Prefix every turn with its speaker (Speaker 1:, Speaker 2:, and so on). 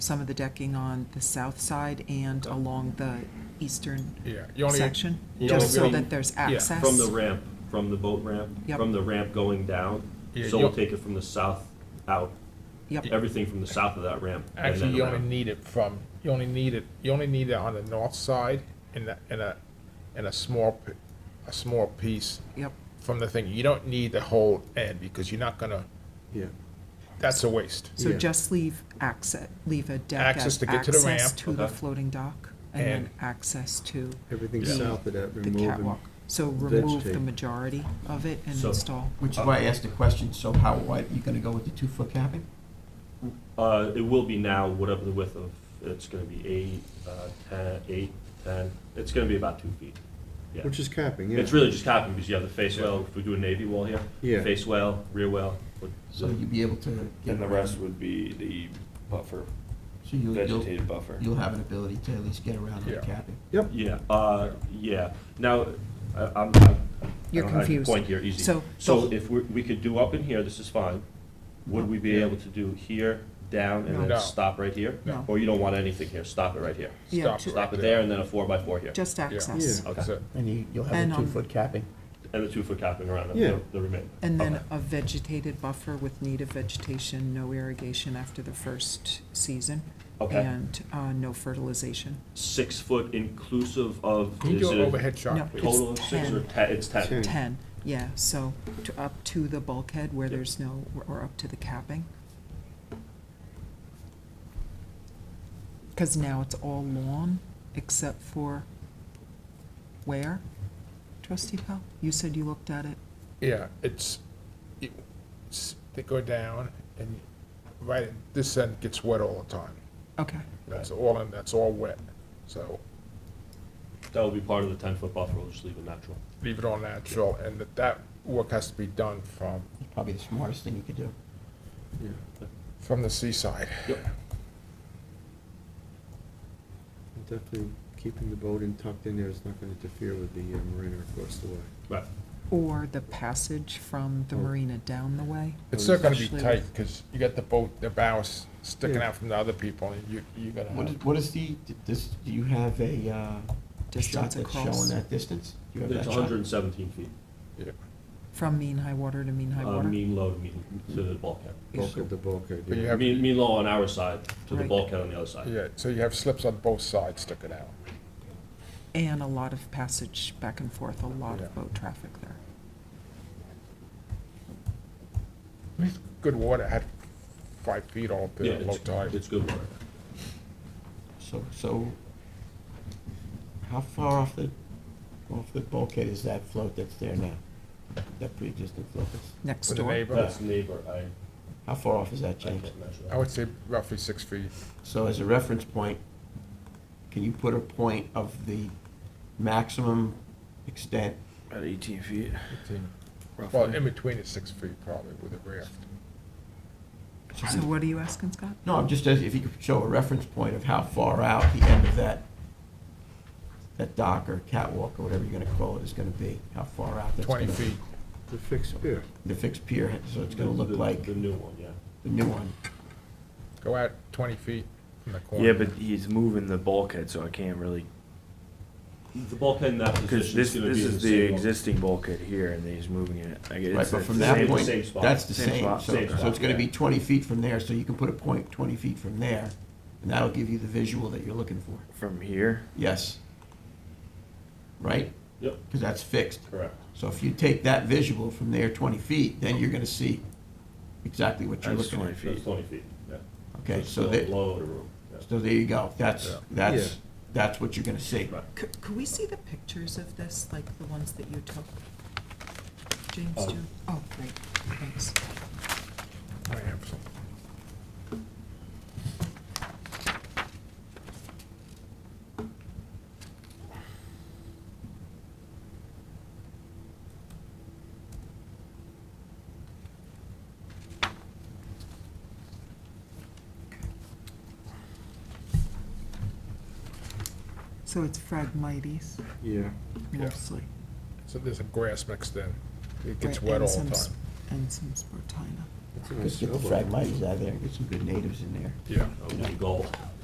Speaker 1: some of the decking on the south side and along the eastern
Speaker 2: Yeah, you only-
Speaker 1: section,
Speaker 3: you
Speaker 1: just so
Speaker 3: only-
Speaker 1: that there's
Speaker 2: yeah, from the
Speaker 1: access.
Speaker 3: From the ramp, from the boat ramp,
Speaker 1: Yep.
Speaker 3: from the ramp going down.
Speaker 2: Yeah,
Speaker 3: So we'll
Speaker 2: you-
Speaker 3: take it from the south out,
Speaker 1: Yep,
Speaker 3: everything from the south of that ramp. and
Speaker 2: Actually,
Speaker 3: then
Speaker 2: you only
Speaker 3: around.
Speaker 2: need it from, you only need it, you only need it on the north side in a, in a, in a small, p- a small piece
Speaker 1: yep,
Speaker 2: from the thing. You don't need the whole end because you're not gonna,
Speaker 4: Yeah,
Speaker 2: that's a waste.
Speaker 1: so
Speaker 4: Yeah.
Speaker 1: just leave access, leave a deck
Speaker 2: Access
Speaker 1: as
Speaker 2: to get to the
Speaker 1: access
Speaker 2: ramp,
Speaker 1: to the
Speaker 3: okay.
Speaker 1: floating dock and then
Speaker 2: And-
Speaker 1: access to
Speaker 4: everything
Speaker 1: Yeah.
Speaker 4: south of that,
Speaker 1: the
Speaker 4: removing.
Speaker 1: catwalk. So remove the
Speaker 4: vegetate.
Speaker 1: majority of it and
Speaker 3: So-
Speaker 1: install.
Speaker 5: Which is why I asked the question, so how wide are you gonna go with the two-foot capping?
Speaker 3: Uh, it will be now, whatever the width of, it's gonna be eight, uh, ten, eight, ten, it's gonna be about two feet. Yeah.
Speaker 4: Which is capping, yeah.
Speaker 3: It's really just capping because you have the face well, if we do a navy wall here.
Speaker 4: Yeah.
Speaker 3: Face well, rear well. with
Speaker 5: So
Speaker 3: the-
Speaker 5: you'll be able to get.
Speaker 6: And the
Speaker 5: around.
Speaker 6: rest would be the buffer,
Speaker 5: So you'll, you'll,
Speaker 6: vegetated buffer.
Speaker 5: you'll have an ability to at least get around the
Speaker 2: Yeah.
Speaker 5: capping.
Speaker 4: Yep,
Speaker 3: Yeah, uh, yeah. Now, I- I'm, I'm.
Speaker 1: You're
Speaker 3: I don't have your
Speaker 1: confused.
Speaker 3: Point here, easy.
Speaker 1: So-
Speaker 3: So if we, we could do up in here, this is fine. Would we be able to do here, down,
Speaker 1: No.
Speaker 3: and
Speaker 2: No.
Speaker 3: then stop right here?
Speaker 1: No.
Speaker 3: Or you don't want anything here, stop it right here?
Speaker 1: Yeah,
Speaker 2: Stop
Speaker 1: ju-
Speaker 2: right
Speaker 3: Stop it there and then a four by four here,
Speaker 1: Just access.
Speaker 4: Yeah.
Speaker 2: That's it.
Speaker 5: And you, you'll
Speaker 1: And,
Speaker 5: have the
Speaker 1: um,
Speaker 5: two-foot capping.
Speaker 3: and the two foot capping around the-
Speaker 4: Yeah.
Speaker 3: the, the remainder.
Speaker 1: And then
Speaker 3: Okay.
Speaker 1: a vegetated buffer with native vegetation, no irrigation after the first season.
Speaker 3: Okay.
Speaker 1: And, uh, no fertilization.
Speaker 3: Six foot inclusive of.
Speaker 2: Can you
Speaker 3: is
Speaker 2: do
Speaker 3: it
Speaker 2: an
Speaker 3: a
Speaker 2: overhead
Speaker 1: No.
Speaker 2: shot, please?
Speaker 3: Total of
Speaker 1: It's
Speaker 3: six or ten, it's ten?
Speaker 4: Ten.
Speaker 1: 10, yeah, so to, up to the bulkhead where
Speaker 3: Yep.
Speaker 1: there's no, or up to the capping. Because now it's all lawn, except for where? Trustee Pell, you said you looked at it.
Speaker 2: Yeah, it's, it's, they go down and right, this end gets wet all the time.
Speaker 1: Okay,
Speaker 2: That's all, and that's all wet. So
Speaker 3: That will be part of the ten foot buffer, we'll just leave it natural.
Speaker 2: leave it all natural and that, that work has to be done from,
Speaker 5: It's probably the smartest thing you could do.
Speaker 4: yeah.
Speaker 2: from the seaside.
Speaker 4: Definitely keeping the boat in tucked in there is not gonna interfere with the uh, marina across the way.
Speaker 3: Right.
Speaker 1: or the passage from the marina down the way.
Speaker 2: It's still gonna be
Speaker 1: Especially
Speaker 2: tight,
Speaker 1: with-
Speaker 2: cause you got the boat, the bows sticking
Speaker 4: Yeah.
Speaker 2: out from the other people, and you, you gotta
Speaker 5: What is,
Speaker 2: have,
Speaker 5: what is the, this, do you have a, uh, shot
Speaker 1: Distance
Speaker 5: that's
Speaker 1: across
Speaker 5: showing that distance? Do you have
Speaker 3: It's
Speaker 5: that shot?
Speaker 3: hundred and seventeen feet,
Speaker 2: yeah.
Speaker 1: from mean high water to mean high
Speaker 3: uh,
Speaker 1: water.
Speaker 3: mean low to mean, to the bulkhead.
Speaker 4: Bulkhead to bulkhead,
Speaker 2: But you
Speaker 4: yeah.
Speaker 2: have-
Speaker 3: Mean, mean low on our side to the
Speaker 1: Right.
Speaker 3: bulkhead on the other
Speaker 4: Uh.
Speaker 3: side.
Speaker 2: yeah, so you have slips on both sides sticking out.
Speaker 1: And a lot of passage back and forth, a lot
Speaker 2: Yeah.
Speaker 1: of boat traffic there.
Speaker 2: Good water, had five feet all up
Speaker 3: Yeah,
Speaker 2: there at low
Speaker 3: it's,
Speaker 2: tide.
Speaker 3: it's good water.
Speaker 5: So, so, how far off the, off the bulkhead is that float that's there now? That pre-existing float that's,
Speaker 1: Next
Speaker 2: With the
Speaker 1: door,
Speaker 2: neighbor,
Speaker 3: That's neighbor, I,
Speaker 5: how far off is that,
Speaker 3: I
Speaker 5: James?
Speaker 3: can't measure
Speaker 2: I
Speaker 3: that.
Speaker 2: would say roughly six feet.
Speaker 5: So as a reference point, can you put a point of the maximum extent?
Speaker 6: At eighteen feet,
Speaker 2: Eighteen. Well, in
Speaker 6: roughly.
Speaker 2: between is six feet probably with a raft.
Speaker 1: so what are you asking, Scott?
Speaker 5: No, I'm just, asking if you could show a reference point of how far out the end of that, that dock or catwalk or whatever you're gonna call it is gonna be, how far out that's
Speaker 2: Twenty
Speaker 5: gonna-
Speaker 2: feet,
Speaker 4: The fixed pier.
Speaker 5: The fixed pier, so it's gonna
Speaker 3: The-
Speaker 5: look
Speaker 3: the-
Speaker 5: like
Speaker 3: The
Speaker 5: the
Speaker 3: new one, yeah.
Speaker 5: new one.
Speaker 2: go out twenty feet from the corner.
Speaker 6: Yeah, but he's moving the bulkhead, so I can't really,
Speaker 3: The bulkhead in that
Speaker 6: because
Speaker 3: position is
Speaker 6: this,
Speaker 3: gonna
Speaker 6: this
Speaker 3: be in the
Speaker 6: is the
Speaker 3: same. bulk-
Speaker 6: existing bulkhead here, and he's moving it. I guess
Speaker 5: Right,
Speaker 6: it's
Speaker 5: but
Speaker 6: the
Speaker 5: from
Speaker 3: same-
Speaker 5: that point,
Speaker 3: same spot.
Speaker 5: that's the
Speaker 6: Same
Speaker 5: same,
Speaker 6: spot.
Speaker 5: so,
Speaker 3: Same
Speaker 5: so
Speaker 3: spot,
Speaker 5: it's gonna be
Speaker 3: yeah.
Speaker 5: twenty feet from there, so you can put a point twenty feet from there, and that'll give you the visual that you're looking for.
Speaker 6: From here,
Speaker 5: Yes. Right?
Speaker 3: Yep,
Speaker 5: Because that's fixed.
Speaker 3: correct.
Speaker 5: So if you take that visual from there twenty feet, then you're gonna see exactly what you're
Speaker 6: that's
Speaker 5: looking
Speaker 6: twenty
Speaker 5: at.
Speaker 3: That's
Speaker 6: feet.
Speaker 3: twenty feet, yeah.
Speaker 5: Okay,
Speaker 3: it's
Speaker 5: so
Speaker 3: still
Speaker 5: that,
Speaker 3: Below the room, yeah.
Speaker 5: so there you go. That's,
Speaker 2: Yeah.
Speaker 5: that's,
Speaker 4: Yeah.
Speaker 5: that's what you're gonna see.
Speaker 3: Right.
Speaker 1: Could, could we see the pictures of this, like the ones that you took? James,
Speaker 2: Uh,
Speaker 3: Oh.
Speaker 1: do, oh, great, thanks.
Speaker 2: I have some.
Speaker 1: So it's Phragmites
Speaker 4: Yeah,
Speaker 2: Yeah.
Speaker 1: mostly.
Speaker 2: So there's some grass mixed in. It gets
Speaker 1: right,
Speaker 2: wet
Speaker 1: and
Speaker 2: all
Speaker 1: some
Speaker 2: the
Speaker 1: s-
Speaker 2: time.
Speaker 1: And some Spartina.
Speaker 4: That's a nice
Speaker 5: Just get the
Speaker 4: sailboat.
Speaker 5: fragmites out of there, get some good natives in there.
Speaker 2: Yeah.
Speaker 3: Oh, That would be the goal.